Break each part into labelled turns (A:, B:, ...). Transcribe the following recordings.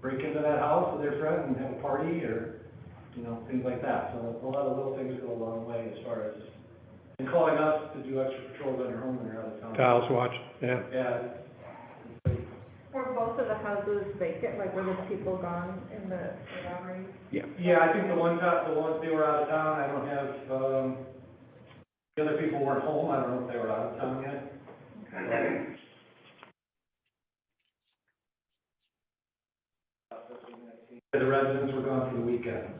A: break into that house with their friend and have a party or, you know, things like that. So a lot of little things go a long way as far as, and calling us to do extra patrols on your home when you're out of town.
B: Kyle's watching, yeah.
A: Yeah, it's-
C: Were both of the houses vacant, like were the people gone in the robbery?
A: yeah, I think the one time, the ones they were out of town, I don't have, um, the other people weren't home, I don't know if they were out of town yet. The residents were gone for the weekend,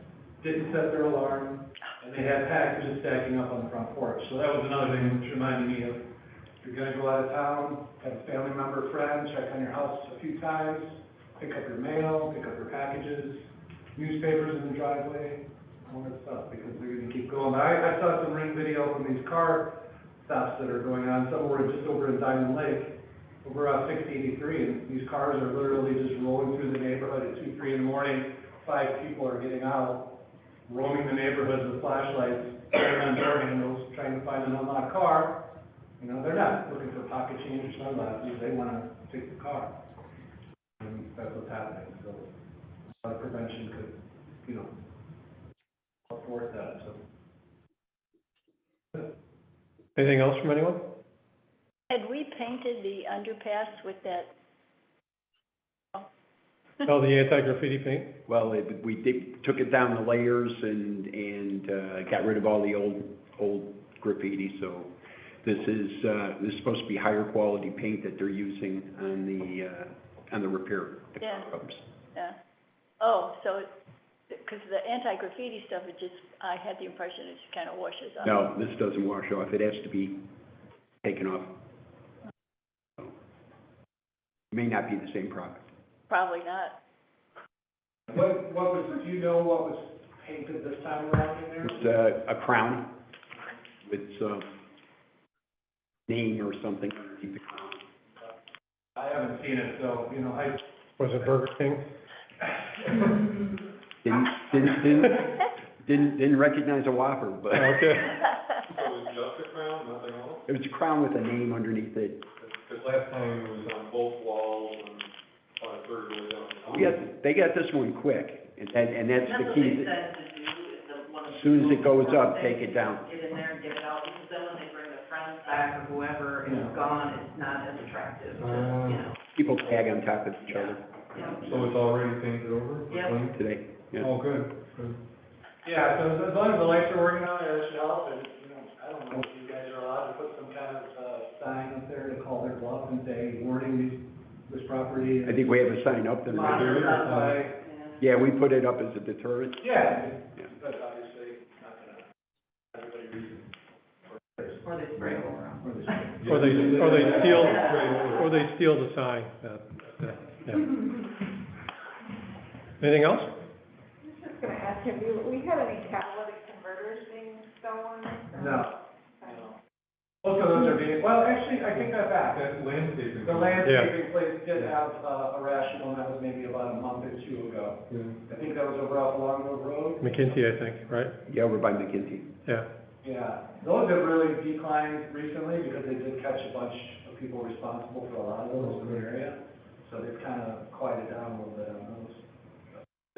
A: didn't set their alarm, and they had packages stacking up on the front porch. So that was another thing which reminded me of, if you're gonna go out of town, have a family member, friend, check on your house a few times, pick up your mail, pick up your packages, newspapers in the driveway, all that stuff, because they're gonna keep going. I, I saw some ring video from these car stops that are going on, some were just over in Diamond Lake, over off six eighty-three, and these cars are literally just rolling through the neighborhood at two, three in the morning. Five people are getting out, roaming the neighborhoods with flashlights, turning on door handles, trying to find an unlocked car. You know, they're not looking for pocket change or sunglasses, they wanna take the car. And that's what's happening, so, a lot of uh, prevention could, you know, afford that, so.
B: Anything else from anyone?
D: Had we painted the underpass with that?
B: Oh, the anti-graffiti paint?
E: Well, it- we did, took it down the layers and, and, uh, got rid of all the old, old graffiti, so this is, uh, this is supposed to be higher quality paint that they're using on the, uh, on the repair. the
D: Yeah.
E: curbs.
D: Yeah. uh, Oh, so, because the anti-graffiti stuff, it just, I had the impression it just kind of washes off.
E: No, this doesn't wash off, it has to be taken off. So, May not be the same product.
D: Probably not.
A: What, what was, do you know what was painted this time around in there?
E: It's uh, a, a crown with some name or something underneath the crown.
A: I haven't seen it, so, you know, I.
B: Was it Burger King?
E: Didn't, didn't, didn't, Didn't, didn't recognize a Whopper, but
B: Okay.
D: Well,
F: just a crown, nothing else?
E: it was a crown with a name underneath it.
F: Because last time it was on both walls and on a third way down. the
B: Oh.
E: We got, they got this one quick, and, that- and that's
G: That's
E: the
G: what
E: key.
G: they said to do, is the one of the.
E: As soon as it goes up,
G: they
E: take it down.
G: Get in there and get it out, because then when they bring the friends back or whoever is
A: Yeah.
G: gone, it's not as attractive, to,
F: Ah.
G: you know.
E: People tag on top of each other
G: Yeah.
F: So it's already painted over?
G: Yeah.
F: Clean?
E: today. Yeah.
F: Oh, good, good.
A: Yeah, so as- as long as the lights are working out, it should help, and, you know, I don't know if you guys are allowed to put some kind of, uh, sign up there to call their bluff and say, warning this, this property. is
E: I think we have a sign up there.
A: locked
F: there is a
A: up by-"
G: Yeah.
E: Yeah, we put it up as a deterrent.
A: Yeah,
E: Yeah.
A: but obviously, not gonna, everybody reads it.
G: Or they spray it around.
A: Or they-
B: Or they, or they steal,
F: Straight over.
B: or they steal the sign, uh, yeah, yeah. Anything else?
C: I was just gonna ask, have you, we had any catalytic converters being stolen?
A: No, no. Most of those are being, well, actually, I think that's back,
F: That landscaping.
A: The landscaping place did have uh, a rational, that was maybe about a month or two ago. I
F: Yeah.
A: think that was over off Longbow Road.
B: McKinsey, I think, right?
E: Yeah, over by McKinsey.
B: Yeah.
A: Yeah, those have really declined recently because they did catch a bunch of people responsible for a lot of those in the area. So they've kind of quieted down a little bit on those.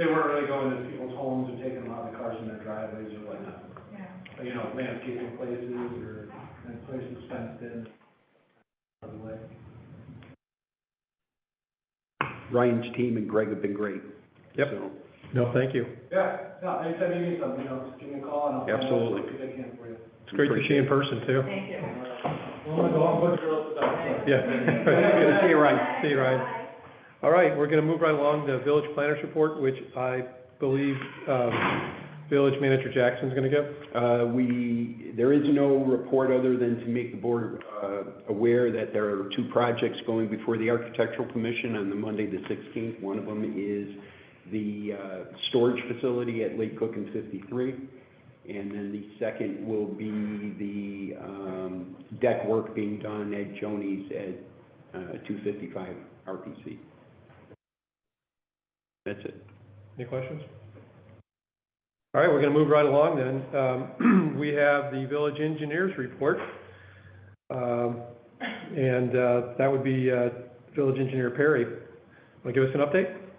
A: They weren't really going into people's homes and taking a lot of the cars in their driveways or whatnot.
C: Yeah.
A: But, You know, landscaping places or and places fenced in. By the way.
E: Ryan's team and Greg have been great.
B: Yep.
E: So,
B: No, thank you.
A: Yeah, no, anytime you need something, you know, just give me a call and I'll. find out
E: Absolutely.
A: what I can for you.
B: It's great to see you in person, too.
G: Thank you.
A: Well, the long book girls is outside.
B: Yeah.
E: Good to see you, Ryan.
B: See you, Ryan. All right, we're gonna move right along to village planners report, which I believe, um, village manager Jackson's gonna give.
E: Uh, we, there is no report other than to make the board, uh, aware that there are two projects going before the Architectural Commission on the Monday, the sixteenth. One of them is the, uh, storage facility at Lake Cook and fifty-three. And then the second will be the, um, deck work being done at Joni's at, uh, two fifty-five RPC. That's it.
B: Any questions? All right, we're gonna move right along then. Um, we have the village engineers report. Um, and, uh, that would be, uh, village engineer Perry. Wanna give us an update?